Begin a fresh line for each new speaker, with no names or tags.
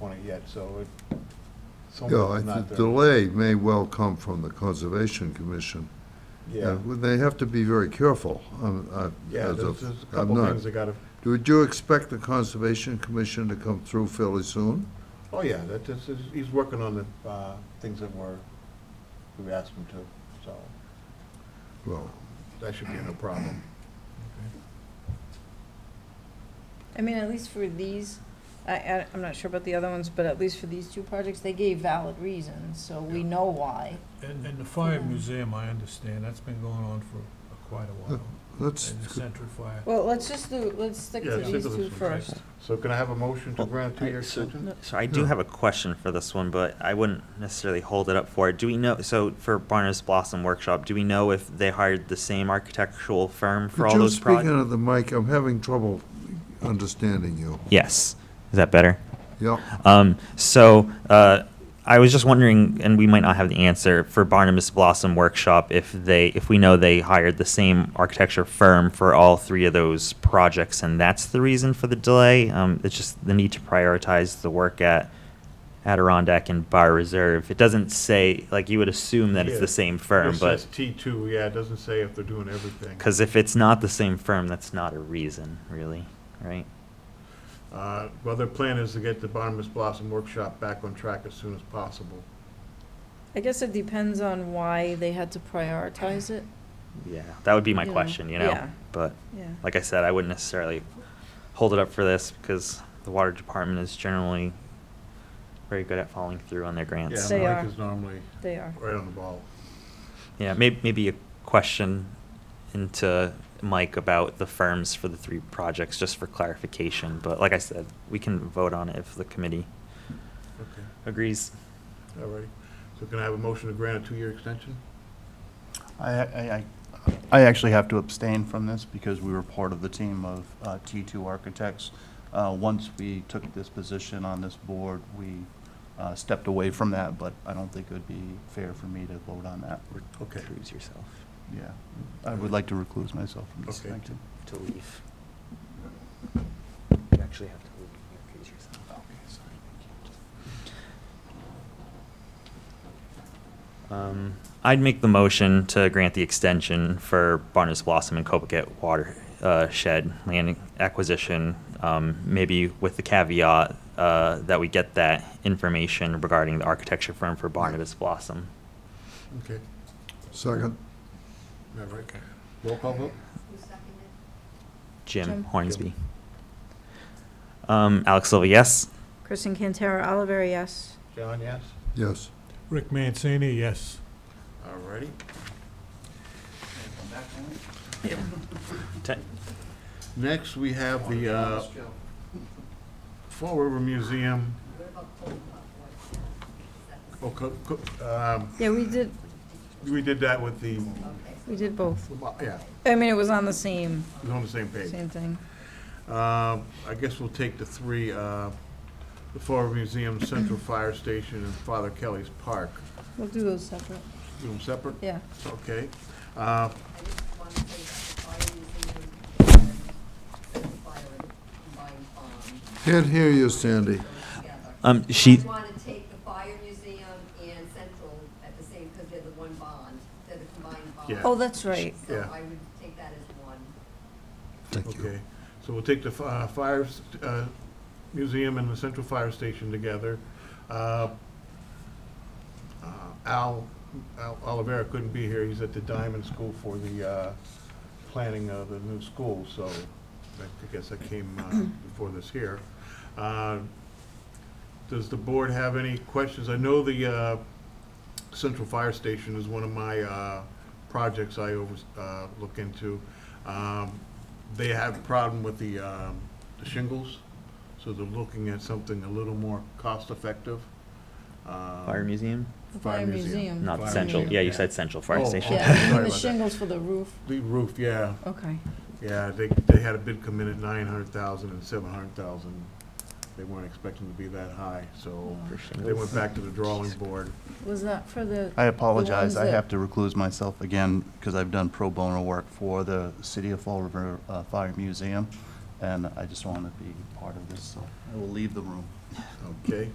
on it yet, so it,
Yeah, I
someone's not
think
there.
delay may well come from the Conservation Commission.
Yeah,
Uh, They have to be very careful. um, uh,
yeah,
as
there's
of-
there's a
I'm
couple
not-
things I gotta,
Would you expect the Conservation Commission to come through fairly soon?
oh, yeah, that, this is, he's working on the, uh, things that were, we asked him to, so
Well,
that should be no problem.
I mean, at least for these, I- I, I'm not sure about the other ones, but at least for these two projects, they gave valid reasons, so we know why.
And, and the fire
Yeah.
museum, I understand, that's been going on for quite a while,
let's,
and the Central Fire.
Well, let's just do, let's stick
Yeah,
to
stick
these
with
two
this one, right?
first.
So can I have a motion to
Well,
grant two-year
Oh, I- so-
extension?
So I do
Yeah.
have a question for this one, but I wouldn't necessarily hold it up for it. Do we know, so for Barnes Blossom Workshop, do we know if they hired the same architectural firm
could
for all
you
those
speak
projects?
into the mic? I'm having trouble understanding you.
Yes, is that better?
Yeah,
Um, so, uh, I was just wondering, and we might not have the answer, for Barnabas Blossom Workshop, if they, if we know they hired the same architecture firm for all three of those projects, and that's the reason for the delay? Um, it's just the need to prioritize the work at Adirondack and Bar Reserve. It doesn't say, like, you would assume that it's
Yeah.
the same firm,
It
but,
says T two, yeah, it doesn't say if they're doing everything.
because if it's not the same firm, that's not a reason, really, right?
Uh, Well, their plan is to get the Barnabas Blossom Workshop back on track as soon as possible.
I guess it depends on why they had to prioritize it,
Yeah, that would be my
Yeah.
question, you know?
Yeah.
But.
yeah.
like I said, I wouldn't necessarily hold it up for this because the water department is generally very good at following through on their
Yeah,
grants.
They
Mike
are.
is normally
They are.
right on the ball.
Yeah, maybe, maybe a question into Mike about the firms for the three projects, just for clarification. But like I said, we can vote on it if the committee
Okay,
agrees.
all right. So can I have a motion to grant a two-year extension?
I, I, I- I actually have to abstain from this because we were part of the team of uh, T2 Architects. Uh, Once we took this position on this board, we uh, stepped away from that, but I don't think it would be fair for me to vote on that.
Okay.
Recuse yourself
Yeah, I would like to recluse myself from this.
Okay.
Thank you.
to leave. You actually have to leave. Recuse yourself. Okay, sorry. Um, I'd make the motion to grant the extension for Barnes Blossom and Copacat Water uh, Shed land acquisition, um, maybe with the caveat uh, that we get that information regarding the architecture firm for Barnabas Blossom.
Okay,
second.
all right. Roll call vote?
Jim,
Jim.
Hornsby. Um, Alex Silva, yes.
Kristen Cantara Oliveri, yes.
John, yes?
Yes,
Rick Mancini, yes.
All righty. Next, we have the uh, Fall River Museum. Oh, co- co- um,
Yeah, we did,
we did that with the,
we did both.
yeah,
I mean, it was on the same,
it was on the same page.
same thing.
Uh, I guess we'll take the three, uh, the Fall River Museum, Central Fire Station, and Father Kelly's Park.
We'll do those separate,
Do them separate?
yeah.
Okay. Uh,
I just want to say that the fire museum and the fire and combined farm
can't hear you, Sandy.
goes together.
Um, she,
I want to take the fire museum and central at the same, because they're the one bond, they're the combined bond.
Yeah.
Oh, that's right.
So
Yeah.
I would take that as one.
Thank you.
Okay, so we'll take the fi- uh, fire, s- uh, museum and the central fire station together. Uh, uh, Al, Al Olivera couldn't be here, he's at the Diamond School for the, uh, planning of the new school, so I guess that came, uh, before this here. Uh, Does the board have any questions? I know the, uh, central fire station is one of my, uh, projects I over, uh, look into. Um, they have a problem with the, um, the shingles, so they're looking at something a little more cost-effective. Um,
Fire Museum?
The
Fire
Fire
museum.
museum.
Not
Fire
Central.
Museum,
Yeah, you
yeah.
said Central Fire
Oh,
Station.
okay.
Yeah,
Sorry
and the
about that.
shingles for the roof,
The roof, yeah,
okay.
yeah, they, they had a bid come in at nine hundred thousand and seven hundred thousand. They weren't expecting to be that high, so they went back to the drawing board.
Was that for the,
I apologize, I
that-
have to recluse myself again because I've done pro bono work for the City of Fall River uh, Fire Museum, and I just want to be part of this, so I will leave the room.
Okay.